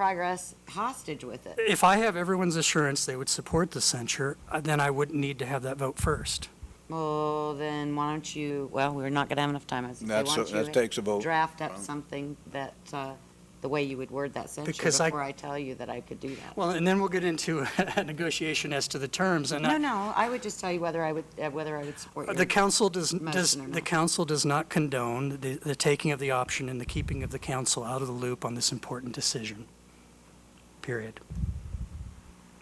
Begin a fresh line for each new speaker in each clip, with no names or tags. progress hostage with it.
If I have everyone's assurance they would support the censure, uh, then I wouldn't need to have that vote first.
Well, then why don't you, well, we're not going to have enough time. I was gonna say,
That's-
why don't
that
you
takes a vote.
Draft up something that, uh, the way you would word that censure
Because I-
before I tell you that I could do that.
Well, and then we'll get into a negotiation as to the terms, and
No,
I-
no, I would just tell you whether I would, uh, whether I would support
the
your,
council does, does,
Motion or
the
not.
council does not condone the, the taking of the option and the keeping of the council out of the loop on this important decision. Period.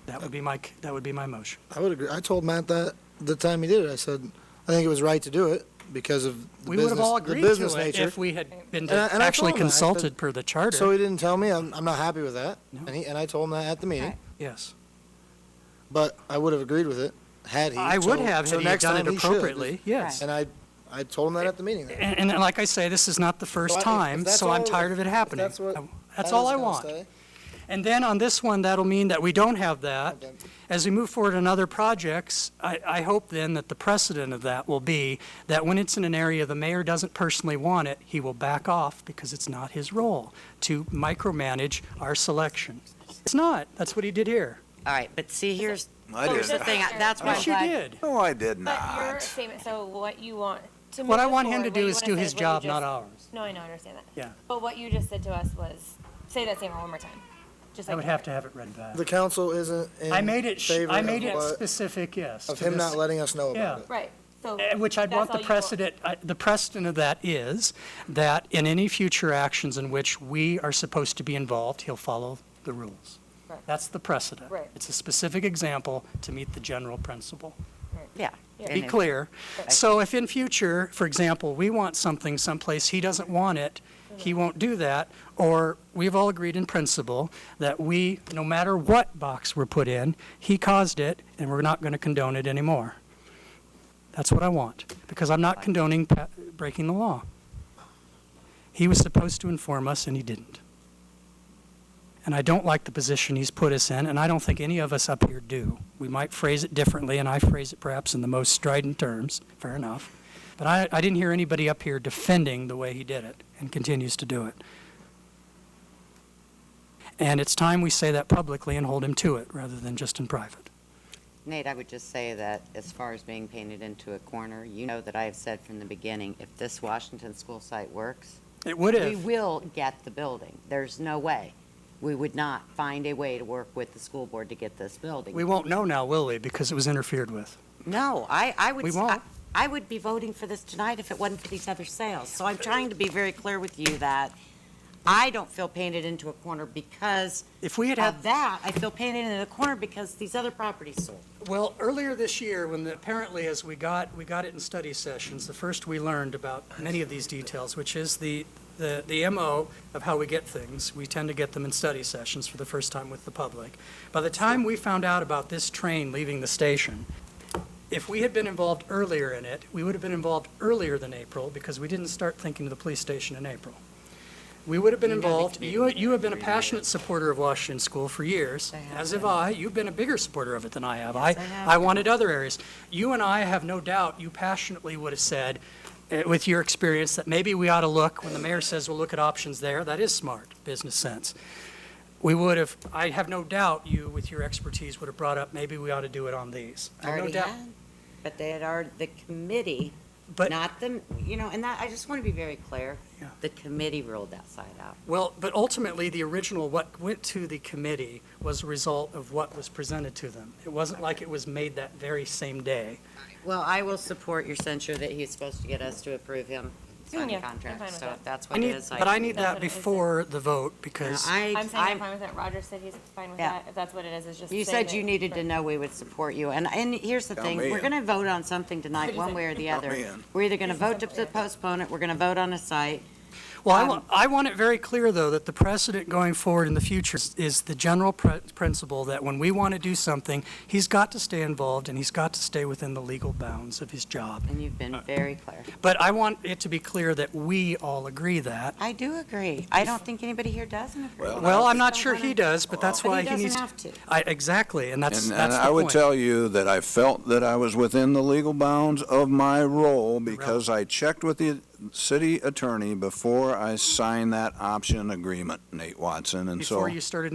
That would be my, c- that would be my motion.
I would agree. I told Matt that the time he did it. I said, I think it was right to do it because of the
We would
business,
have all
the
agreed
business
to it
nature.
if we had been
And I- and I
actually
told him that, but-
consulted per the charter.
so he didn't tell me. I'm, I'm not happy with that.
No.
And, he, and I told him that at the meeting.
Right.
Yes.
But I would have agreed with it had he.
I would
So-
have,
so
had he
next
done
time
it
he should.
appropriately, yes.
And I, I told him that at the meeting. That
And, and like I say, this is not the first
if- if
time,
that's
so I'm
all-
tired of it
if
happening.
that's what-
I- That's all
was
I
gonna
want.
stay.
And then on this one, that'll mean that we don't have that.
Okay.
As we move forward on other projects, I, I hope then that the precedent of that will be that when it's in an area the mayor doesn't personally want it, he will back off because it's not his role to micromanage our selection. It's not. That's what he did here.
all right, but see, here's,
I
here's the
did.
thing, I- that's why I'm
Yes, you
glad-
did.
No, I did
But your
not.
statement, so what you want to
What
move
I
it
want him to
forward,
do
what
is
you
do
wanna say
his
what you
job,
just-
not ours.
No, I know, I understand that.
Yeah.
But what you just said to us was, say that statement one more time, just like.
I would have to have it read back.
The council isn't in
Uh, I made it, sh-
favor
I made
of,
it
what-
specific, yes.
of
to
him
this.
not letting us know about
Yeah.
it.
Right, so.
Uh, Which I'd
that's
want the
all you
precedent, I- the precedent of that is that in any future actions in which we are supposed to be involved, he'll follow the rules.
Right.
That's the precedent.
Right.
It's a specific example to meet the general principle.
yeah.
Be
And if-
clear. So if in future, for example, we want something someplace he doesn't want it, he
Mm-hmm.
won't do that, or we've all agreed in principle that we, no matter what box we're put in, he caused it, and we're not going to condone it anymore. That's what I want, because I'm not condoning pa- breaking the law. He was supposed to inform us, and he didn't. And I don't like the position he's put us in, and I don't think any of us up here do. We might phrase it differently, and I phrase it perhaps in the most strident terms, fair enough. But I, I didn't hear anybody up here defending the way he did it and continues to do it. And it's time we say that publicly and hold him to it rather than just in private.
Nate, I would just say that as far as being painted into a corner, you know that I have said from the beginning, if this Washington school site works,
It would
we
have.
will get the building. There's no way. We would not find a way to work with the school board to get this building.
We won't know now, will we? Because it was interfered with.
No, I, I would.
We
s-
won't.
I I would be voting for this tonight if it wasn't for these other sales. So I'm trying to be very clear with you that I don't feel painted into a corner because
If we had had
of that. I feel painted into a corner because these other properties sold.
Well, earlier this year, when the- apparently as we got, we got it in study sessions, the first we learned about many of these details, which is the, the, the MO of how we get things. We tend to get them in study sessions for the first time with the public. By the time we found out about this train leaving the station, if we had been involved earlier in it, we would have been involved earlier than April because we didn't start thinking of the police station in April. We would have been
You know the
involved, you,
community
you have been a
meeting reminded.
passionate supporter of Washington School for years,
I have
as have
been.
I. You've been a bigger supporter of it than I have. I,
Yes, I have
I
been.
wanted other areas. You and I have no doubt, you passionately would have said, eh, with your experience, that maybe we ought to look, when the mayor says we'll look at options there, that is smart, business sense. We would have, I have no doubt you, with your expertise, would have brought up, maybe we ought to do it on these. I have no
Already
doubt.
had, but they had already, the committee,
But-
not the, you know, and that, I just want to be very clear.
Yeah.
The committee ruled that side out.
Well, but ultimately, the original, what went to the committee was a result of what was presented to them. It wasn't like it was made that very same day.
Well, I will support your censure that he's supposed to get us to approve him signing
Yeah, I'm fine
contract.
with
So
that.
if that's
I
what it
need,
is.
but I need
That's
that
what it is.
before the vote, because,
I,
I'm saying I'm fine with it, Roger said he's fine with
Yeah.
that, if that's what it is, it's just.
You
saying
said
that-
you needed to
Right.
know we would support you, and, and here's the
Count
thing,
me
we're
in.
gonna vote on something tonight,
What'd you
one
say?
way or the
Count
other.
me in.
We're either gonna
Please
vote to
don't forget.
postpone it, we're gonna vote on a site,
well, I
um,
want, I want it very clear, though, that the precedent going forward in the future is- is the general pr- principle that when we want to do something, he's got to stay involved, and he's got to stay within the legal bounds of his job.
and you've been very clear.
But I want it to be clear that we all agree that.
I do agree, I don't think anybody here doesn't agree.
Well,
Well,
I
I'm not
just
sure
don't
he
wanna-
does, but that's
But
why
he
he
doesn't
needs.
have to.
I, exactly, and that's,
And,
that's
and
the
I would
point.
tell you that I felt that I was within the legal bounds of my role because I checked with the, city attorney before I sign that option agreement, Nate Watson, and so.
Before you started